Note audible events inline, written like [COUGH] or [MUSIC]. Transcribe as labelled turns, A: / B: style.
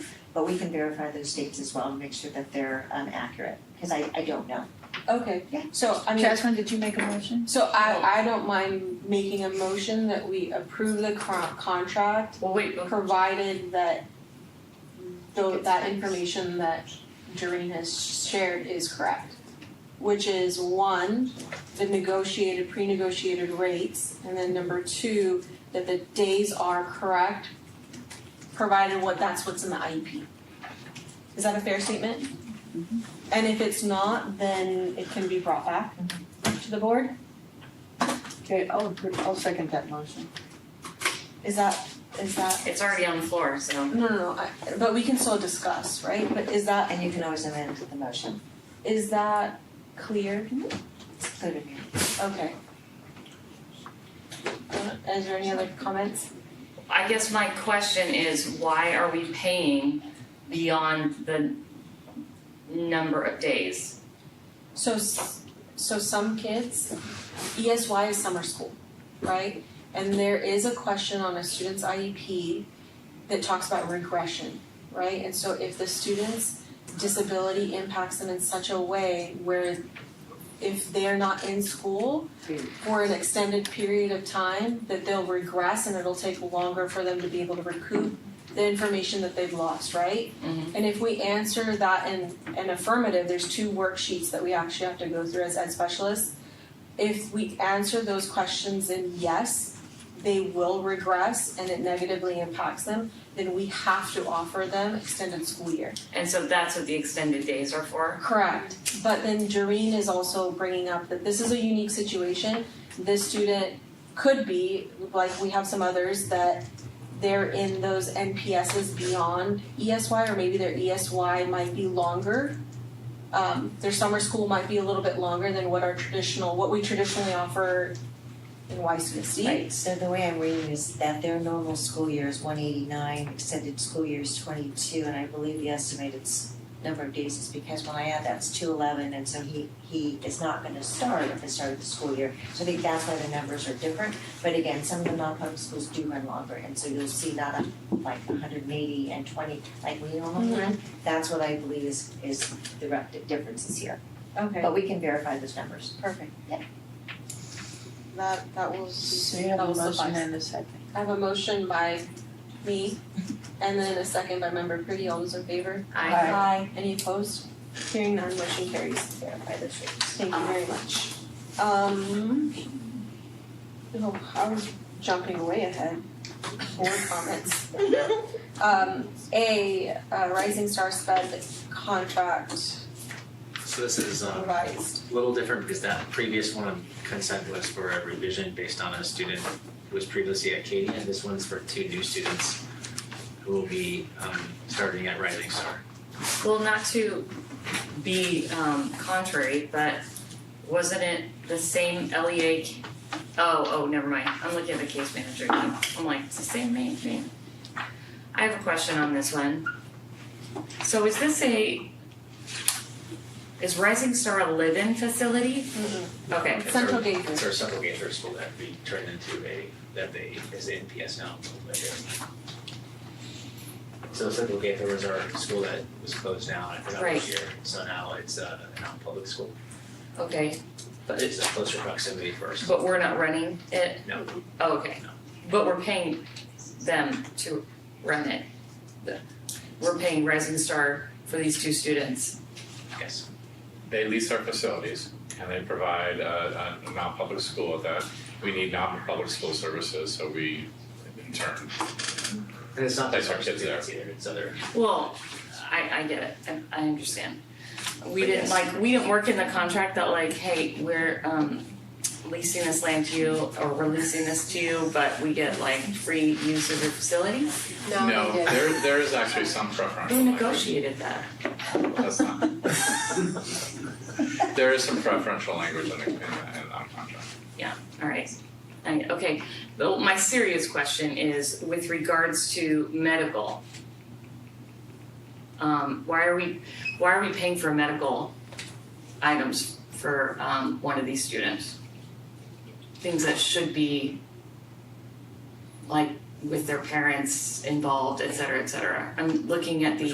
A: But we can verify those dates as well and make sure that they're um accurate, because I I don't know.
B: Okay,
A: Yeah.
B: so I mean,
C: Catherine, did you make a motion?
B: so I I don't mind making a motion that we approve the con- contract
C: Well, wait,
B: provided that though
C: It's
B: that
C: fixed.
B: information that Doreen has shared is correct. Which is one, the negotiated, pre-negotiated rates, and then number two, that the days are correct, provided what, that's what's in the IEP. Is that a fair statement?
C: Mm-hmm.
B: And if it's not, then it can be brought back
C: Mm-hmm.
B: to the board?
C: Okay, I'll, appro- I'll second that motion.
B: Is that, is that?
D: It's already on the floor, so.
B: No, no, no, I- but we can still discuss, right? But is that
A: And you can always amend the motion,
B: Is that clear?
A: it's clear to me.
B: Okay. Uh, Is there any other comments?
D: I guess my question is, why are we paying beyond the number of days?
B: So, s- so some kids, ESY is summer school, right? And there is a question on a student's IEP that talks about regression, right? And so if the student's disability impacts them in such a way where if they're not in school, for an extended period of time that they'll regress and it'll take longer for them to be able to recoup the information that they've lost, right?
D: Mhm.
B: And if we answer that in an affirmative, there's two worksheets that we actually have to go through as ed specialists. If we answer those questions in yes, they will regress and it negatively impacts them, then we have to offer them extended school year.
D: And so that's what the extended days are for?
B: Correct, but then Jareen is also bringing up that this is a unique situation. This student could be, like we have some others, that they're in those NPSs beyond ESY, or maybe their ESY might be longer. Um, their summer school might be a little bit longer than what our traditional, what we traditionally offer in YCSD.
A: Right, so the way I'm reading is that their normal school year is one eighty-nine, extended school year is twenty-two, and I believe the estimated s- number of days is because when I add that's two eleven, and so he, he is not gonna start at the start of the school year. So I think that's why the numbers are different, but again, some of the non-public schools do run longer, and so you'll see not a, like hundred and eighty and twenty, like we normally run. That's what I believe is, is the rep, differences here,
B: Okay,
A: but we can verify those numbers.
B: perfect.
A: Yeah.
B: That, that will,
C: So you have
B: that
C: a
B: will suffice.
C: motion and a second.
B: I have a motion by me and then a second by member Pretty. All those in favor?
D: I,
B: Any opposed? Hearing none, motion carries.
A: Verify those rates.
B: Thank you very much. Um, oh, I was jumping way ahead. Board comments. Um, A, uh, Rising Star Sped contract
E: So this is um, a
B: revised.
E: little different because that previous one consent was for a revision based on a student who was previously at Katie, and this one's for two new students who will be um, starting at Rising Star.
D: well, not to be um contrary, but wasn't it the same LEA? c- Oh, oh, never mind. I'm looking at the case manager again. I'm like, it's the same main thing. I have a question on this one. So is this a, is Rising Star a live-in facility?
B: Mhm.
D: Okay.
E: It's our-
B: Central Gateway.
E: It's our central gate for school that we turned into a, that they, is the NPS now. but they're- So Central Gaither was our school that was closed down, I forgot
D: Right.
E: which year, so now it's uh, a non-public school.
D: Okay,
E: But it's a closer proximity for our school.
D: but we're not running it?
E: No,
D: Oh, okay. But we're paying them to run it. The- We're paying Rising Star for these two students.
E: yes,
F: they lease our facilities and they provide a, a non-public school that we need non-public school services, so we in turn.
E: and it's not
F: Place
E: just
F: our
E: our
F: kids there.
E: students either, it's other,
D: Well, I, I get it. I, I understand. We
E: But
D: didn't
E: yes.
D: like, we didn't work in the contract that like, hey, we're um leasing this land to you or we're leasing this to you, but we get like free use of your facility.
F: No, there, there is actually some preferential
D: Who
F: language.
D: negotiated that?
F: That's not. [LAUGHS] There is some preferential language in the, in the, in the contract.
D: All right. I, okay. Well, my serious question is with regards to medical. Um, why are we why are we paying for medical items for um, one of these students? Things that should be like with their parents involved, et cetera, et cetera. I'm looking at the